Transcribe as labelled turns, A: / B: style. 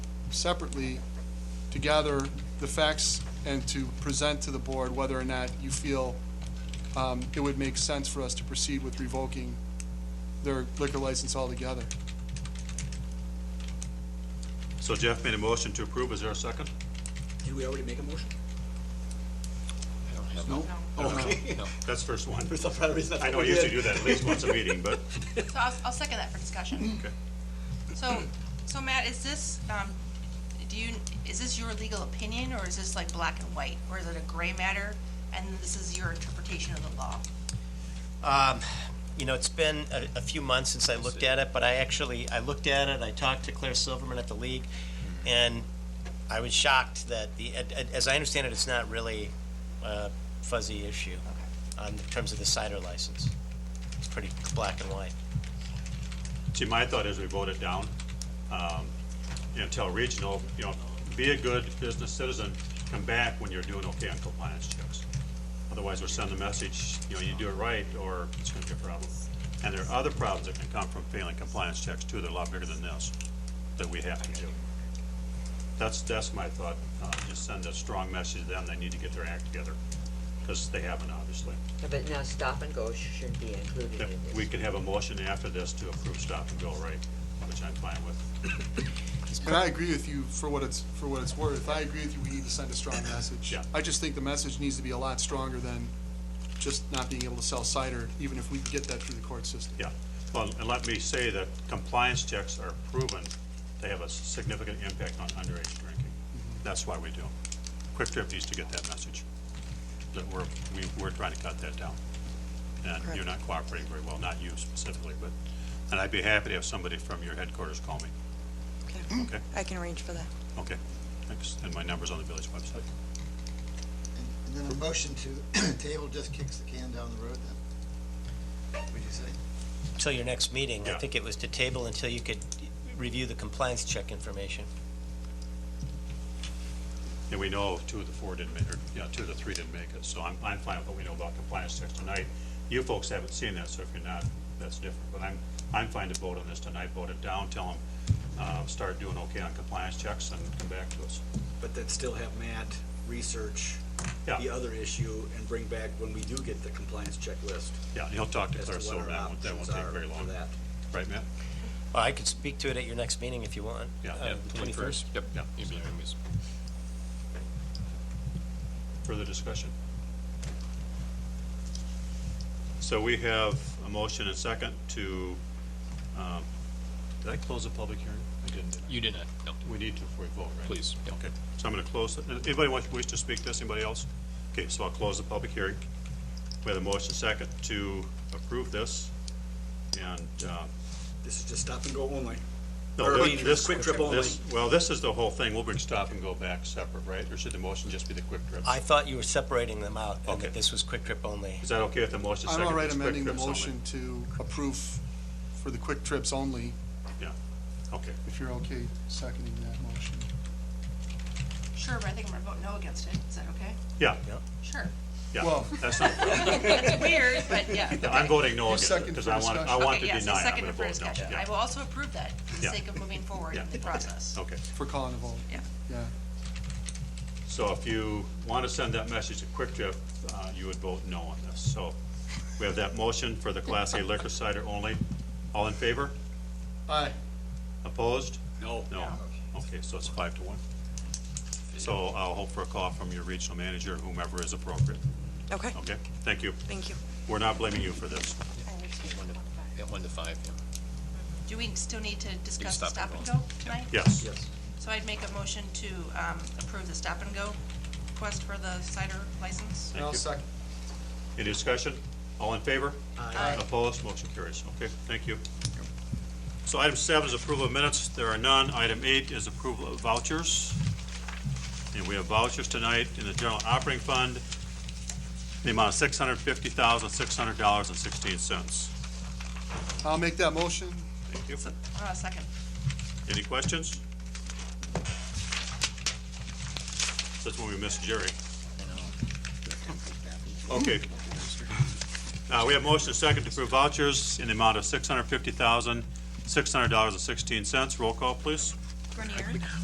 A: separately to gather the facts and to present to the board whether or not you feel um, it would make sense for us to proceed with revoking their liquor license altogether.
B: So Jeff made a motion to approve, is there a second?
C: Did we already make a motion?
A: No?
C: Okay.
B: That's first one.
C: For some odd reason,
B: I know
C: what
B: I
C: we
B: usually
C: did.
B: do that at least once a meeting, but
D: So I'll, I'll second that for discussion.
B: Okay.
D: So, so Matt, is this, um, do you, is this your legal opinion, or is this like black and white? Or is it a gray matter, and this is your interpretation of the law?
E: Um, You know, it's been a, a few months since I looked at it, but I actually, I looked at it, I talked to Claire Silverman at the league,
B: Mm-hmm.
E: and I was shocked that the, a- a- as I understand it, it's not really a fuzzy issue um, in terms of the cider license. It's pretty black and white.
B: see, my thought is we vote it down. um, You know, tell regional, you know, be a good business citizen, come back when you're doing okay on compliance checks. Otherwise, we're sending the message, you know, you do it right, or it's gonna be a problem. And there are other problems that can come from failing compliance checks too, they're a lot bigger than this, that we have to do. That's, that's my thought, uh, just send a strong message to them, they need to get their act together, because they haven't, obviously.
F: But now stop and go should be included
B: Yep,
F: in this.
B: We can have a motion after this to approve stop and go rate, which I'm fine with.
A: And I agree with you for what it's, for what it's worth. I agree with you, we need to send a strong message.
B: Yeah.
A: I just think the message needs to be a lot stronger than just not being able to sell cider, even if we can get that through the court system.
B: Yeah. Well, and let me say that compliance checks are proven to have a significant impact on underage drinking. That's why we do them. Quick Trip needs to get that message, that we're, we- we're trying to cut that down. And you're not cooperating very well, not you specifically, but, and I'd be happy to have somebody from your headquarters call me.
G: Okay.
B: Okay.
G: Mm. I can arrange for that.
B: Okay, thanks. And my number's on the village website.
H: And then a motion to table just kicks the can down the road then? Would you say?
E: Until your next meeting, I
B: Yeah.
E: think it was to table until you could review the compliance check information.
B: And we know two of the four didn't make, or, yeah, two of the three didn't make it, so I'm, I'm fine with what we know about compliance checks tonight. You folks haven't seen that, so if you're not, that's different, but I'm, I'm fine to vote on this tonight, vote it down, tell them, uh, start doing okay on compliance checks and come back to us.
C: But then still have Matt research the
B: Yeah,
C: other issue and bring back when we do get the compliance checklist
B: yeah, he'll talk to
C: as to
B: Claire
C: what
B: Silver,
C: our
B: that won't, that won't
C: options
B: take
C: are
B: very
C: for
B: long,
C: that.
B: right, Matt?
E: Well, I could speak to it at your next meeting if you want.
B: Yeah,
E: uh,
B: yeah,
E: 21st.
I: Yep.
B: Yeah.
I: You mean, it was-
B: Further discussion? So we have a motion and second to, um, did I close the public hearing? I didn't. did I?
I: You did not, no,
B: We need to before we vote, right?
I: please. yep.
B: Okay, so I'm going to close, it. anybody want- wish to speak to this, anybody else? Okay, so I'll close the public hearing. We have a motion second to approve this, and, uh,
C: This is just stop and go only.
B: no,
C: Or, I mean,
B: this, this-
C: Quick Trip only.
B: this- Well, this is the whole thing, we'll bring stop and go back separate, right? Or should the motion just be the quick trip?
E: I thought you were separating them out and
B: Okay.
E: that this was quick trip only.
B: Is that okay with the motion
A: I'm
B: second?
A: all right
B: It's quick
A: amending the
B: trips only?
A: motion to approve for the quick trips only,
B: Yeah, okay.
A: if you're okay seconding that motion.
D: Sure, but I think I'm gonna vote no against it. Is that okay?
B: Yeah,
D: Sure.
B: yeah,
A: Well-
B: that's not,
D: It's weird, but yeah.
B: yeah, I'm voting no
A: You
B: against it,
A: second
B: because
A: for
B: I want, I
A: discussion.
B: want to deny
D: Okay, yeah,
B: it.
D: so
B: I'm
D: second
B: gonna
D: it
B: vote
D: for
B: no.
D: discussion.
B: Yeah,
D: I will also approve that for the
B: Yeah.
D: sake of moving forward
B: Yeah.
D: in the process.
B: Okay.
A: For calling a vote.
D: Yeah.
A: Yeah.
B: So if you want to send that message to Quick Trip, uh, you would vote no on this. So we have that motion for the Class A liquor cider only. All in favor?
A: Aye.
B: Opposed?
C: No.
B: No. Okay, so it's five to one. So I'll hope for a call from your regional manager, whomever is appropriate.
G: Okay,
B: Okay? Thank you.
G: thank you.
B: We're not blaming you for this.
I: Yeah, one to five, yeah.
D: Do we still need to discuss the
I: stop
D: stop
I: and
D: and
I: go.
D: go tonight?
B: Yes.
C: Yes.
D: So I'd make a motion to um, approve the stop and go request for the cider license.
B: Thank
A: I'll
B: you.
A: second.
B: Any discussion? All in favor?
D: Aye.
B: Opposed? Motion carries. Okay, thank you. So item seven is approval of minutes. There are none. Item eight is approval of vouchers. And we have vouchers tonight in the general operating fund, the amount of six hundred fifty thousand, six hundred dollars and sixteen cents.
A: I'll make that motion.
B: Thank you.
D: Uh, Second.
B: Any questions? That's when we missed Jerry. Okay. Uh, we have motion and second to approve vouchers in the amount of six hundred fifty thousand, six hundred dollars and sixteen cents. Roll call, please.
D: Grenier?